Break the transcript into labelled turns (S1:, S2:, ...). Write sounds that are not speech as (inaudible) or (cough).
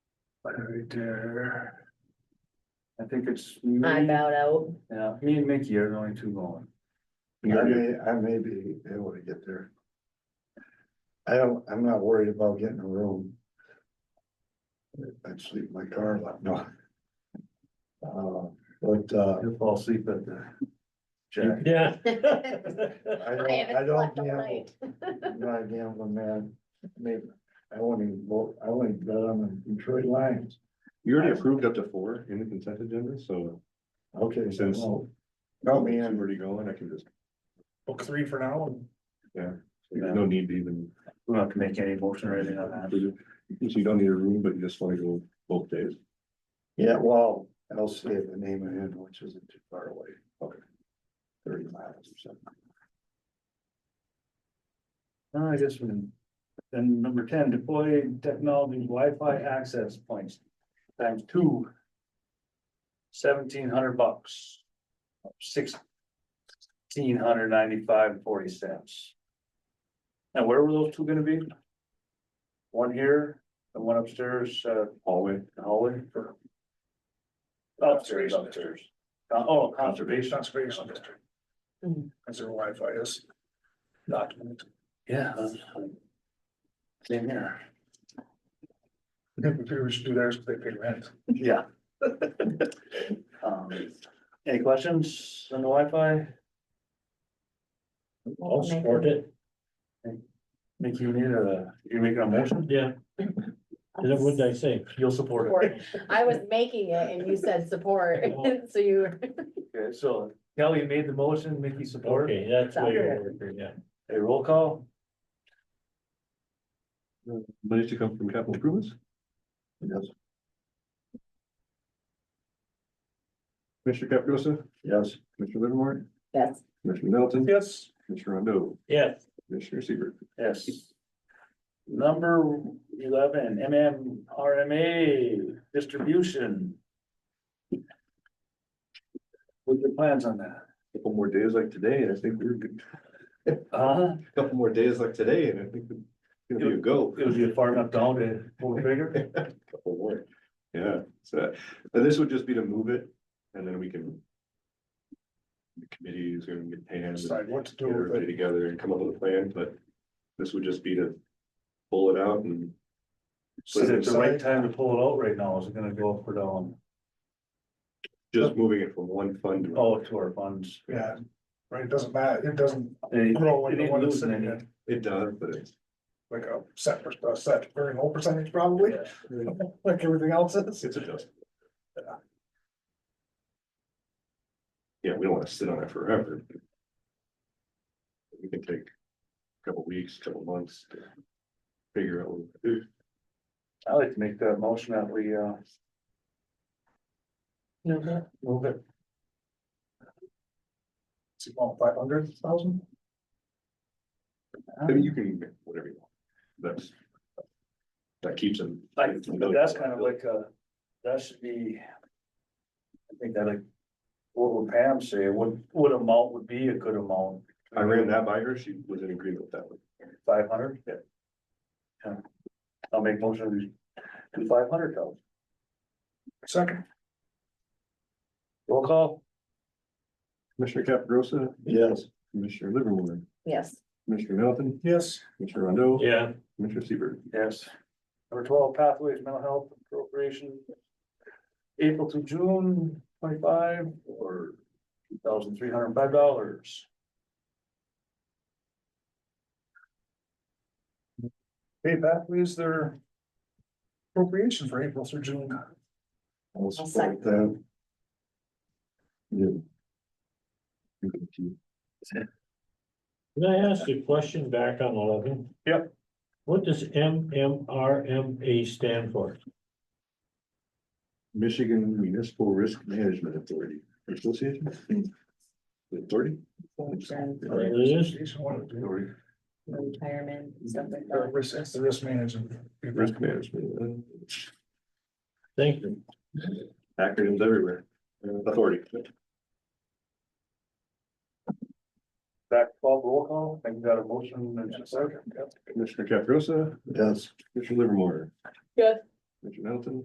S1: Right there. I think it's
S2: I
S1: me,
S2: bowed out.
S1: yeah, me and Mickey are the only two going.
S3: I may, I may be able to get there. I don't, I'm not worried about getting a room. I'd sleep in my car, lot. no. Uh, but, uh,
S1: You'll fall asleep at the. Jack,
S4: (laughs) Yeah.
S3: I
S2: I
S3: don't, I
S2: haven't
S3: don't
S2: slept all
S3: gamble,
S2: night.
S3: I'm not a gambling man, maybe, I won't even vote, I won't even bet on the Detroit Lions,
S5: You already approved up to four in the consent agenda, so
S3: okay, so,
S5: Since-
S3: no.
S5: tell
S3: Count
S5: me
S3: me
S5: I'm
S3: in,
S5: already going, I can just,
S4: Book three for now and
S5: there's no need to even,
S1: we don't have to make any motion or anything on that.
S5: so you don't need a room, but you just wanna go both days.
S3: yeah, well, I'll say the name of it, which isn't too far away, okay. Thirty miles or something.
S1: No, I guess we, then number ten, deploy technology Wi-Fi access points times two. Seventeen hundred bucks. Sixteen hundred ninety-five and forty cents. Now, where were those two gonna be? One here and one upstairs, uh,
S5: Hallway,
S1: hallway for. Upstairs, upstairs. Uh, oh, conservation.
S4: conservation district.
S2: Hmm.
S4: As their Wi-Fi is. Document.
S1: Yeah. Same here.
S4: Maybe we should do theirs, but they pay rent.
S1: Yeah. (laughs) Um, Any questions on the Wi-Fi?
S4: I'll
S2: support
S4: it.
S1: Make you need a, you're making a motion?
S4: Yeah, I say?
S1: You'll support it.
S2: Support. I was making it and you said support, (laughs) so you.
S1: Okay, so Kelly made the motion, Mickey support.
S4: that's
S2: way you're
S4: yeah.
S1: A roll call?
S5: money to come from capital improvements?
S3: Yes,
S5: Mr. Caprosa,
S3: yes.
S5: Mr. Livermore,
S2: Yes.
S5: Mr. Middleton,
S4: Yes.
S5: Mr. Rondo,
S4: Yeah.
S5: Mr. Seaver.
S1: Yes. Number eleven, MMRMA distribution. What's your plans on that?
S5: Couple more days like today, and I think we're good,
S1: Uh,
S5: couple more days like today, and I think we're gonna be a go.
S1: it would be far enough down to pull the trigger.
S5: Couple more. Yeah, so, and this would just be to move it, and then we can. The committee is gonna get panned.
S4: Decide what to do
S5: get
S4: with
S5: everybody
S4: it.
S5: together and come up with a plan, but this would just be to pull it out and.
S1: Is it the right time to pull it out right now? Is it gonna go up or down?
S5: Just moving it from one fund to,
S1: Oh, to our funds.
S4: Yeah, right, it doesn't matter, it doesn't
S1: They-
S4: grow
S1: they
S4: into
S1: didn't
S4: one that's
S1: lose
S4: sitting
S1: any.
S4: in,
S5: it does, but it's,
S4: like a set, per- a set very low percentage probably,
S1: Yeah.
S4: (laughs) like everything else is.
S5: it's adjustable. Yeah, we don't wanna sit on it forever. We can take a couple weeks, couple months to figure out what to do.
S1: I'd like to make that motion that we, uh, move it.
S4: Five hundred thousand?
S5: I mean, you can, make whatever you want, that's. That keeps them.
S1: I, but that's kind of like, uh, that should be. I think that like, what would Pam say, what, what amount would be a good amount,
S5: I ran that by her, she was in agreement with that one.
S1: five hundred? Yeah. I'll make motion to five hundred thousand,
S4: Second,
S1: roll call,
S5: Commissioner Caprosa,
S3: Yes,
S5: Commissioner Livermore,
S2: Yes.
S5: Commissioner Melton,
S4: yes.
S5: Commissioner Rondo.
S4: Yeah.
S5: Commissioner Seaver.
S1: yes. Number twelve, pathways, mental health appropriation. April to June twenty-five or two thousand three hundred and five dollars.
S4: Hey, Pathways, their appropriation for April through June.
S3: I'll
S2: second.
S3: support that. Yeah.
S6: Can I ask a question back on eleven?
S1: Yep.
S6: What does M M R M A stand for?
S5: Michigan Municipal Risk Management Authority, Association. Authority?
S6: It is,
S4: Association, what it do.
S5: Authority,
S2: Retirement, stuff like
S4: Uh,
S2: that.
S4: Risk, it's the risk management.
S5: Risk Management,
S6: thank you.
S5: uh, acronyms everywhere, Uh, authority.
S1: Back twelve, roll call, I think we got a motion and a second, yep.
S5: Commissioner Caprosa,
S3: Yes.
S5: Commissioner Livermore.
S2: Yes.
S5: Commissioner Melton,